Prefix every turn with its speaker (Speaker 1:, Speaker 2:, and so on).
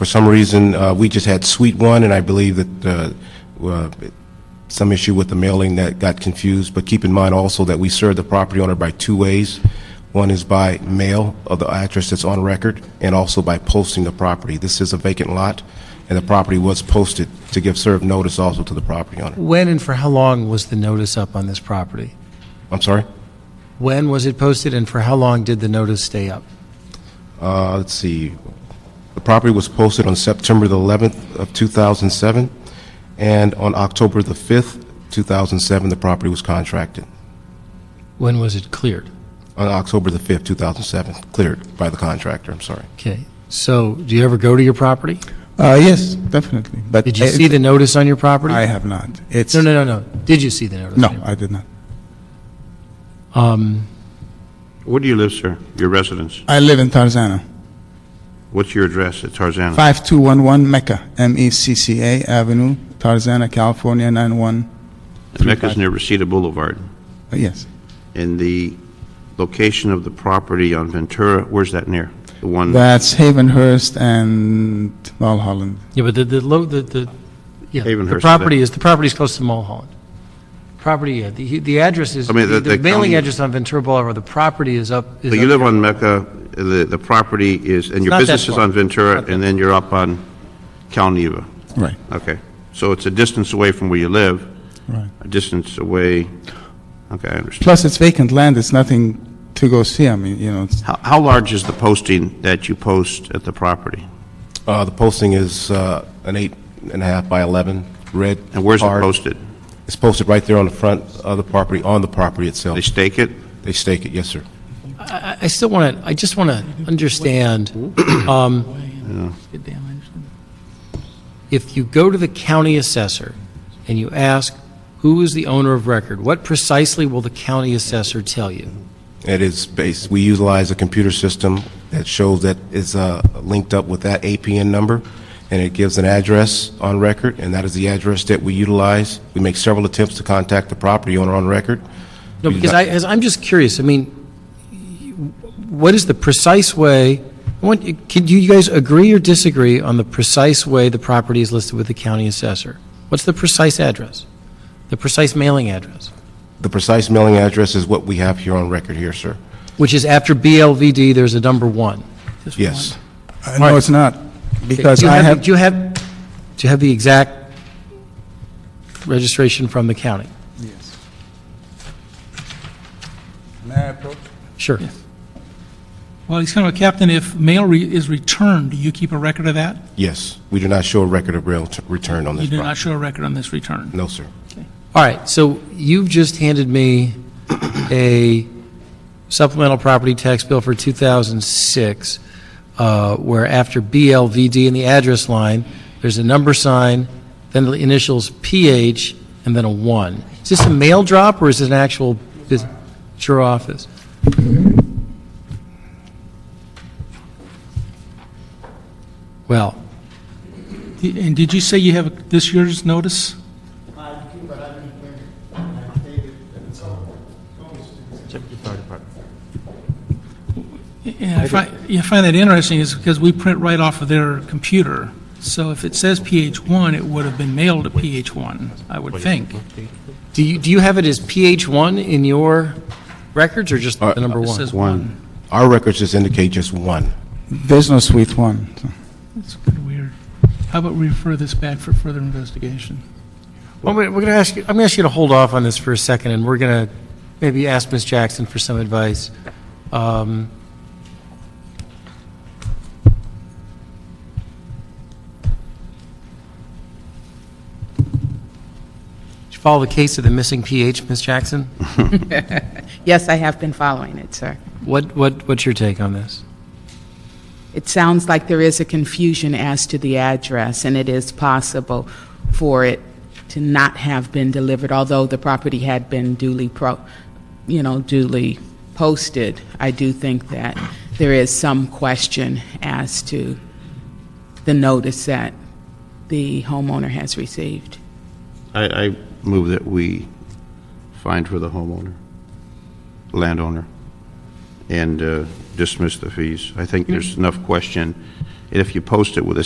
Speaker 1: For some reason, uh, we just had Suite 1, and I believe that uh, uh, some issue with the mailing that got confused, but keep in mind also that we serve the property owner by two ways. One is by mail of the address that's on record, and also by posting the property. This is a vacant lot, and the property was posted to give served notice also to the property owner.
Speaker 2: When and for how long was the notice up on this property?
Speaker 1: I'm sorry?
Speaker 2: When was it posted and for how long did the notice stay up?
Speaker 1: Uh, Let's see, the property was posted on September the 11th of 2007, and on October the 5th, 2007, the property was contracted.
Speaker 2: When was it cleared?
Speaker 1: On October the 5th, 2007, cleared by the contractor, I'm sorry.
Speaker 2: Okay, so do you ever go to your property?
Speaker 3: Uh, yes, definitely. But
Speaker 4: Uh,
Speaker 2: Did you
Speaker 3: it-
Speaker 2: see the notice on your property?
Speaker 3: I have not. It's
Speaker 2: No, no, no, no. Did you see the notice?
Speaker 3: No, I did not.
Speaker 4: Where do you live, sir? Your residence?
Speaker 3: I live in Tarzana,
Speaker 4: What's your address at Tarzana?
Speaker 3: five two one one Mecca, M E C C A Avenue, Tarzana, California nine one. Uh,
Speaker 4: Mecca's near Reseda Boulevard.
Speaker 3: Yes,
Speaker 4: And the location of the property on Ventura, where's that near? The one,
Speaker 3: that's Havenhurst and Mulholland.
Speaker 2: Yeah, but the, the, lo- the, the, yeah, the
Speaker 4: Havenhurst,
Speaker 2: property
Speaker 4: that-
Speaker 2: is, the property is close to Mulholland. Property, yeah, the, the address is,
Speaker 4: I mean, the-
Speaker 2: the
Speaker 4: the
Speaker 2: mailing
Speaker 4: county-
Speaker 2: address on Ventura Boulevard, the property is up. is
Speaker 4: so you
Speaker 2: up-
Speaker 4: live on Mecca, the, the property is, and your
Speaker 2: not that
Speaker 4: business is
Speaker 2: far.
Speaker 4: on Ventura, and then you're up on Calneva.
Speaker 3: Right,
Speaker 4: Okay. So it's a distance away from where you live,
Speaker 3: right.
Speaker 4: a distance away, okay, I understand.
Speaker 3: Plus, it's vacant land. It's nothing to go see. I mean, you know, it's,
Speaker 4: How, how large is the posting that you post at the property?
Speaker 1: Uh, The posting is uh, an eight and a half by 11, red.
Speaker 4: And where's it
Speaker 1: card.
Speaker 4: posted?
Speaker 1: It's posted right there on the front of the property, on the property itself.
Speaker 4: They stake it?
Speaker 1: They stake it, yes, sir.
Speaker 2: I, I still want to, I just want to understand, um, if you go to the county assessor and you ask, who is the owner of record, what precisely will the county assessor tell you?
Speaker 1: It is based, we utilize a computer system that shows that is uh, linked up with that APN number, and it gives an address on record, and that is the address that we utilize. We make several attempts to contact the property owner on record.
Speaker 2: No,
Speaker 1: We do
Speaker 2: because
Speaker 1: not-
Speaker 2: I, as, I'm just curious, I mean, what is the precise way, I want, can you guys agree or disagree on the precise way the property is listed with the county assessor? What's the precise address? The precise mailing address?
Speaker 1: The precise mailing address is what we have here on record here, sir.
Speaker 2: Which is after BLVD, there's a number one.
Speaker 1: Yes.
Speaker 3: uh, no, it's not, because
Speaker 2: Do you
Speaker 3: I have.
Speaker 2: Do you have, do you have the exact registration from the county?
Speaker 3: Yes. May I approach?
Speaker 2: Sure.
Speaker 5: Well, he's kind of a captain. If mail re- is returned, do you keep a record of that?
Speaker 1: Yes. We do not show a record of rail t- return on
Speaker 5: You
Speaker 1: this
Speaker 5: do not
Speaker 1: property.
Speaker 5: show a record on this return.
Speaker 1: No, sir.
Speaker 2: All right, so you've just handed me a supplemental property tax bill for 2006, uh, where after BLVD in the address line, there's a number sign, then the initials PH, and then a 1. Is this a mail drop, or is it an actual, bus- it's your office? Well,
Speaker 5: D- And did you say you have this year's notice? Yeah, I fi- yeah, I find that interesting is because we print right off of their computer. So if it says PH1, it would have been mailed to PH1, I would think.
Speaker 2: do you, do you have it as PH1 in your records, or just the number
Speaker 5: Uh, It
Speaker 2: 1?
Speaker 5: says 1.
Speaker 1: Our records just indicate just one.
Speaker 3: There's no suite one. so.
Speaker 5: That's kind of weird. How about we refer this back for further investigation?
Speaker 2: Well, we're going to ask you, I'm going to ask you to hold off on this for a second, and we're going to maybe ask Ms. Jackson for some advice. Um, Did you follow the case of the missing PH, Ms. Jackson?
Speaker 6: Yes, I have been following it, sir.
Speaker 2: What, what, what's your take on this?
Speaker 6: It sounds like there is a confusion as to the address, and it is possible for it to not have been delivered, although the property had been duly pro, you know, duly posted. I do think that there is some question as to the notice that the homeowner has received.
Speaker 4: I, I move that we find for the homeowner, landowner, and uh, dismiss the fees. I think there's enough question. And if you post it with a